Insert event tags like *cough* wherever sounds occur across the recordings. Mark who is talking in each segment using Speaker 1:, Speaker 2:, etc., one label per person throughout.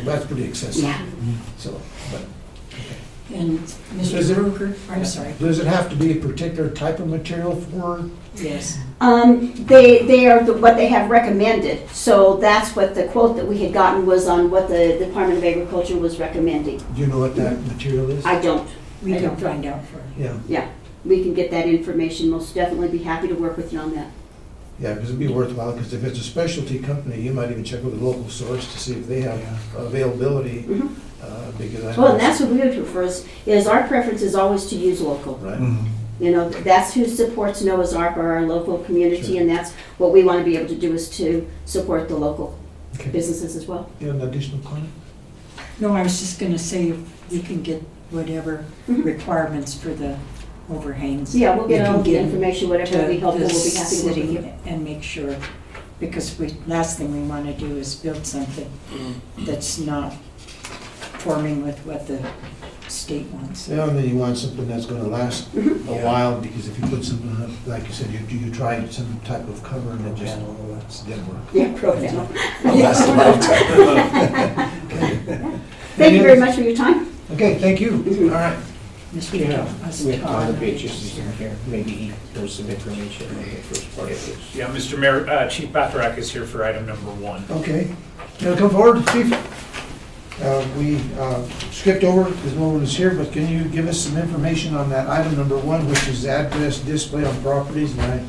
Speaker 1: That's pretty excessive,
Speaker 2: Yeah,
Speaker 1: so, but,
Speaker 2: and Mr.
Speaker 1: Is it-
Speaker 2: Ruger, I'm sorry,
Speaker 1: does it have to be a particular type of material for?
Speaker 2: yes.
Speaker 3: Um, they, they are the- what they have recommended, so that's what the quote that we had gotten was on what the Department of Agriculture was recommending.
Speaker 1: Do you know what
Speaker 2: Mm-hmm.
Speaker 1: that material is?
Speaker 3: I don't,
Speaker 2: We
Speaker 3: I
Speaker 2: can
Speaker 3: don't know.
Speaker 2: find out for you.
Speaker 1: Yeah,
Speaker 3: we can get that information, most definitely be happy to work with you on that.
Speaker 1: yeah, because it'd be worthwhile, because if it's a specialty company, you might even check with a local source to see if they have availability,
Speaker 3: Mhm.
Speaker 1: uh, because I.
Speaker 3: Well, and that's what we would prefer, is, is our preference is always to use local.
Speaker 4: Mm,
Speaker 1: Right,
Speaker 5: Mhm.
Speaker 3: You know, that's who supports NOAA's Ark or our local community, and that's what we want to be able to do is to support the local
Speaker 1: okay,
Speaker 3: businesses as well.
Speaker 1: you have an additional comment?
Speaker 2: No, I was just gonna say, if we can get whatever
Speaker 3: Mhm.
Speaker 2: requirements for the overhangs.
Speaker 3: Yeah, we'll get
Speaker 2: we can
Speaker 3: all the
Speaker 2: get
Speaker 3: information, whatever
Speaker 2: to
Speaker 3: would be helpful,
Speaker 2: the
Speaker 3: we'll be happy to work with
Speaker 2: city
Speaker 3: you.
Speaker 2: And make sure, because we, last thing we wanna do is build something
Speaker 4: Mm.
Speaker 2: that's not forming with what the state wants.
Speaker 1: Yeah, and then you want something that's gonna last a
Speaker 2: Mm-hmm.
Speaker 1: while, because if you put something, up, like you said, you, you try some type of cover and it just, it's didn't work.
Speaker 3: Yeah, program.
Speaker 1: Last a
Speaker 3: *laughs* Thank you very much for your time.
Speaker 1: Okay, thank you,
Speaker 2: Mm-hmm.
Speaker 1: all right.
Speaker 2: Mr.
Speaker 4: Yeah,
Speaker 2: Thomas
Speaker 4: we have
Speaker 2: Todd.
Speaker 4: other pages in here, maybe he knows some information on the first part of this.
Speaker 6: Yeah, Mr. Mayor, uh, Chief Bacharach is here for item number one.
Speaker 1: Okay, can you come forward, chief? Uh, We uh, skipped over, because no one was here, but can you give us some information on that item number one, which is address display on properties? And I,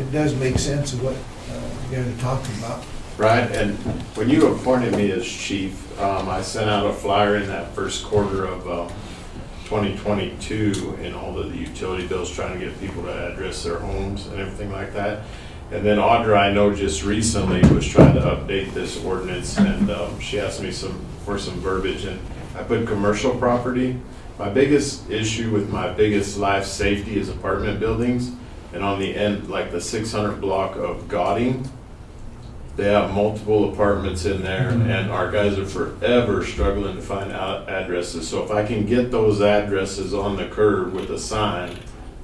Speaker 1: it does make sense of what uh, you guys are talking about.
Speaker 7: Right, and when you appointed me as chief, um, I sent out a flyer in that first quarter of, uh, 2022 in all of the utility bills, trying to get people to address their homes and everything like that. And then Audra, I know just recently was trying to update this ordinance and um, she asked me some, for some verbiage and I put commercial property. My biggest issue with my biggest life safety is apartment buildings. And on the end, like the 600 block of Gauding, they have multiple apartments in there,
Speaker 1: Mm-hmm.
Speaker 7: and our guys are forever struggling to find out addresses. So if I can get those addresses on the curb with a sign,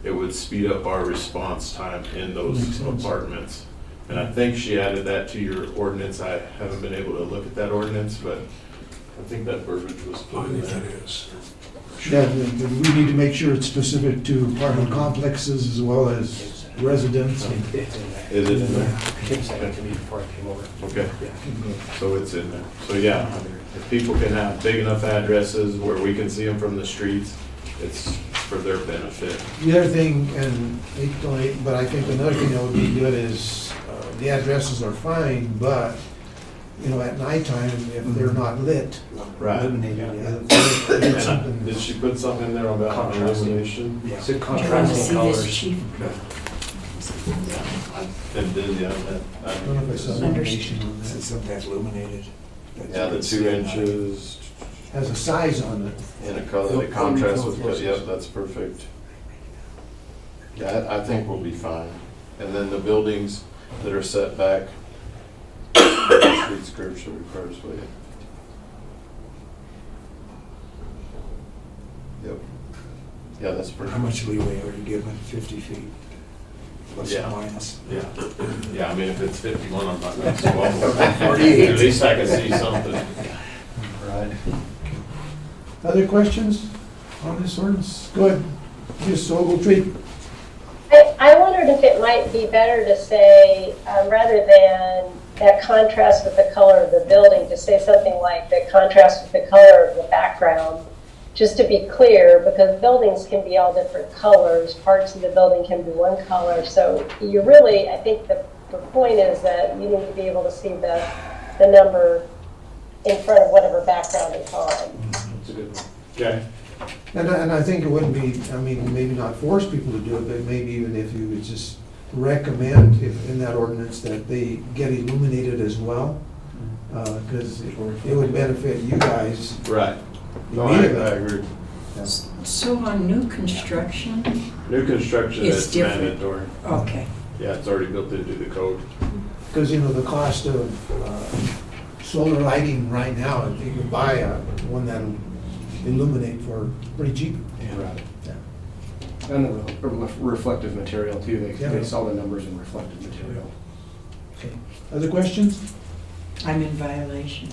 Speaker 7: it would speed up our response time
Speaker 1: Makes
Speaker 7: in those
Speaker 1: sense.
Speaker 7: apartments. And I think she added that to your ordinance. I haven't been able to look at that ordinance, but I think that verbiage was put in there.
Speaker 1: Yeah, we we need to make sure it's specific to apartment complexes as well as residents. and-
Speaker 4: It's in there.
Speaker 7: Is it in there?
Speaker 4: Kim said it to me before I came over.
Speaker 7: Okay,
Speaker 4: Yeah.
Speaker 7: so it's in there. So yeah, I mean, if people can have big enough addresses where we can see them from the streets, it's for their benefit.
Speaker 1: The other thing, and they don't eat, but I think another thing that would be good is, uh, the addresses are fine, but, you know, at nighttime, if they're not lit,
Speaker 7: Right.
Speaker 1: uh,
Speaker 4: Yeah.
Speaker 7: *coughs*
Speaker 1: there's
Speaker 7: And I- Did
Speaker 1: something-
Speaker 7: she put something in there about
Speaker 4: Contrasting.
Speaker 7: illumination?
Speaker 4: Is it
Speaker 2: Do you wanna
Speaker 4: contrasting
Speaker 2: see this,
Speaker 4: colors?
Speaker 2: chief?
Speaker 7: It did, yeah. that-
Speaker 1: I don't know if I saw
Speaker 7: that-
Speaker 2: Under-
Speaker 1: illumination on that.
Speaker 4: sometimes illuminated.
Speaker 7: Yeah, the two inches
Speaker 1: Has a size on it.
Speaker 7: in a color that contrasts with, the- yep, that's perfect. Yeah, I- I think we'll be fine. And then the buildings that are set back, *coughs* street curb should be first, will you? Yep. Yeah, that's perfect.
Speaker 8: much leeway are you given, 50 feet, plus
Speaker 7: Yeah.
Speaker 8: or minus?
Speaker 7: Yeah, yeah, I mean, if it's fifty-one, I'm not gonna swallow it. At least I can see something. Right.
Speaker 1: Other questions on this ordinance? Go ahead, Ms. Ogletree.
Speaker 9: I, I wondered if it might be better to say, um, rather than that contrast with the color of the building, to say something like the contrast with the color of the background, just to be clear, because buildings can be all different colors, parts of the building can be one color, so you really, I think the, the point is that you need to be able to see the, the number in front of whatever background it's on.
Speaker 7: Okay.
Speaker 1: And I, and I think it wouldn't be, I mean, maybe not force people to do it, but maybe even if you would just recommend if, in that ordinance that they get illuminated as well, uh, cause it it would benefit you guys.
Speaker 7: Right. *laughs* No, I, I
Speaker 1: immediately.
Speaker 7: agree.
Speaker 2: So on new construction,
Speaker 7: New construction
Speaker 2: It's
Speaker 7: is
Speaker 2: different.
Speaker 7: mandatory.
Speaker 2: okay,
Speaker 7: Yeah, it's already built into the code.
Speaker 1: Cause you know, the cost of, uh, solar lighting right now, if you can buy a, one that'll illuminate for pretty cheap.
Speaker 4: Right.
Speaker 1: Yeah.
Speaker 4: And the re- reflective material too, they,
Speaker 1: Yeah.
Speaker 4: they saw the numbers in reflective material.
Speaker 1: Other questions?
Speaker 2: I'm in violation.